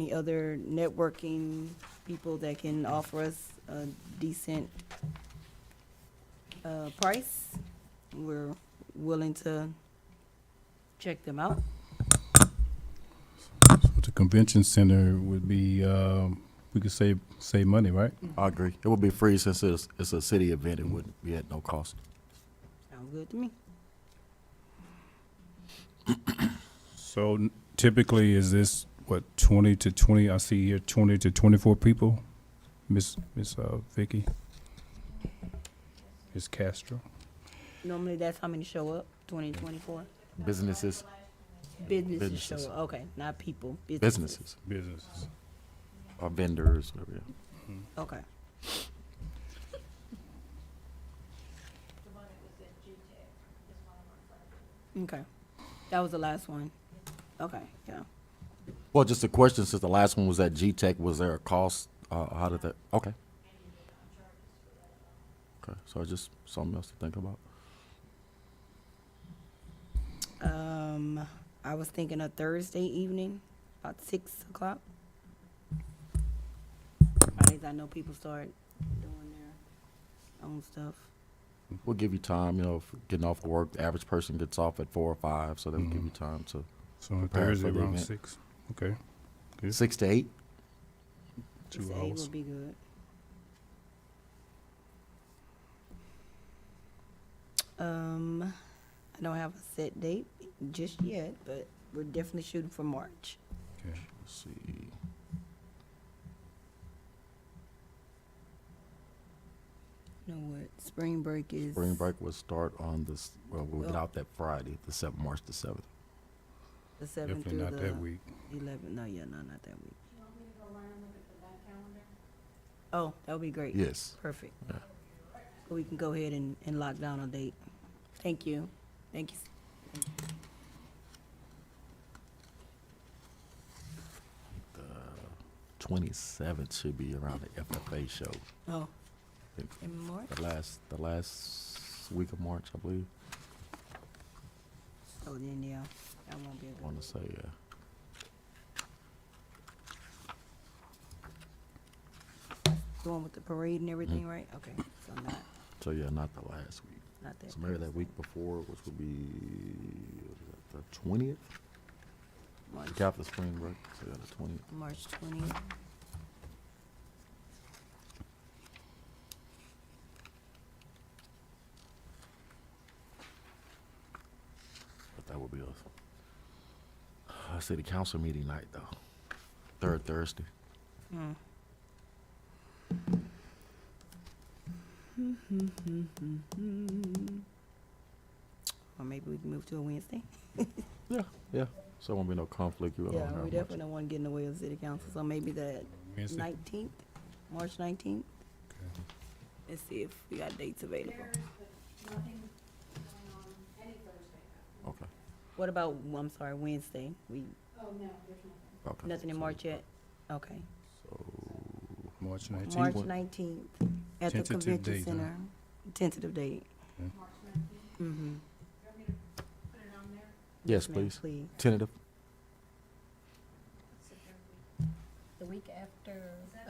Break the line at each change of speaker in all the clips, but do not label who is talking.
any other networking people that can offer us a decent uh, price, we're willing to check them out.
But the convention center would be, um, we could save, save money, right?
I agree. It would be free since it's, it's a city event. It would be at no cost.
Sounds good to me.
So n- typically, is this, what, twenty to twenty, I see here twenty to twenty-four people? Miss, Miss, uh, Vicky? Miss Castro?
Normally, that's how many show up, twenty, twenty-four?
Businesses,
Businesses show
Businesses.
up, okay, not people.
businesses,
Businesses.
or vendors, whatever. yeah.
Okay. Okay, that was the last one. Okay, yeah.
Well, just a question, since the last one was at G-Tech, was there a cost? Uh, how did that, okay. Okay, so just something else to think about.
Um, I was thinking a Thursday evening, about six o'clock. Fridays, I know people start doing their own stuff.
We'll give you time, you know, if getting off work, the average person gets off at four or five, so that'll give
Mhm.
you time to,
So on
Prepare for
Thursday
the
around
event.
six, okay, Yeah.
six to eight?
two
Six to eight
hours.
Would be good. Um, I don't have a set date just yet, but we're definitely shooting for March.
Okay.
Let's see.
You know what? Spring break is.
Spring break will start on this, well, we'll get
Well-
out that Friday, the seventh, March the seventh.
The seventh
Definitely
through
not that
the
week.
eleventh. No, yeah, no, not that week. Oh, that would be great.
Yes.
Perfect.
Yeah.
We can go ahead and, and lock down a date. Thank you. Thank you.
Twenty-seventh should uh, be around the FFA show.
Oh,
Thank
in March?
The last, the last week of March, I believe,
Oh, then, yeah, that won't be a
I
good
want to say, yeah.
The one with the parade and
Mm-hmm.
everything, right? Okay, so not,
So, yeah, not the last week.
not that.
So maybe that
Thursday,
week before, which would be the twentieth,
March,
week after spring break, so yeah, the twentieth.
March twentieth.
But that would be a, a city council meeting night, though, third Thursday.
Hmm. Or maybe we can move to a Wednesday.
Yeah, yeah, so it won't be no conflict, you
Yeah,
don't
we
have
definitely
much.
don't want to get in the way of city council, so maybe the
Wednesday?
nineteenth, March nineteenth. Let's see if we got dates available.
Okay,
What about, I'm sorry, Wednesday? We,
okay.
nothing in
So-
March yet? Okay.
March nineteenth?
March nineteenth at the
Tentative
convention
date, huh?
center. Tentative date.
Okay.
Mm-hmm.
Yes,
ma'am,
please, tentative,
The week after,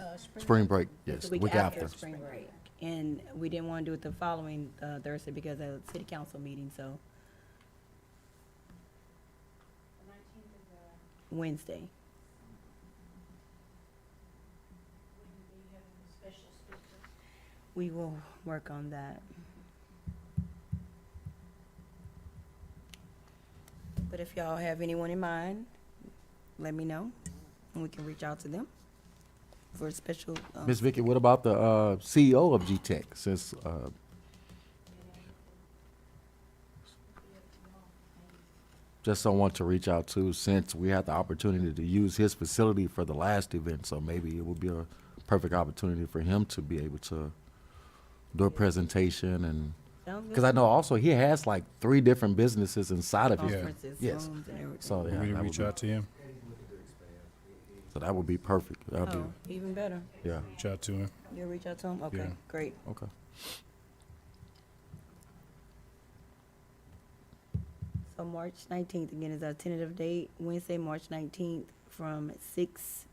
uh, spring.
spring break, yes,
The
the week after.
spring break. And we didn't want to do it the following uh, Thursday because of the city council meeting, so. uh, Wednesday. We will work on that. But if y'all have anyone in mind, let me know, and we can reach out to them for a special. um,
Ms. Vicky, what about the uh, CEO of G-Tech since, uh, just someone to reach out to since we had the opportunity to use his facility for the last event, so maybe it would be a perfect opportunity for him to be able to do a presentation and,
sounds good.
because I know also he has like three different businesses inside of his,
Conferences,
Yes.
rooms, and everything.
so
We need
yeah,
Oh. to
that would
reach
be-
out to him,
so that would be perfect. That'd
Oh,
be,
even better.
yeah,
reach out to him.
You'll reach out to him? Okay,
Yeah.
great.
okay.
So March nineteenth, again, is our tentative date, Wednesday, March nineteenth, from six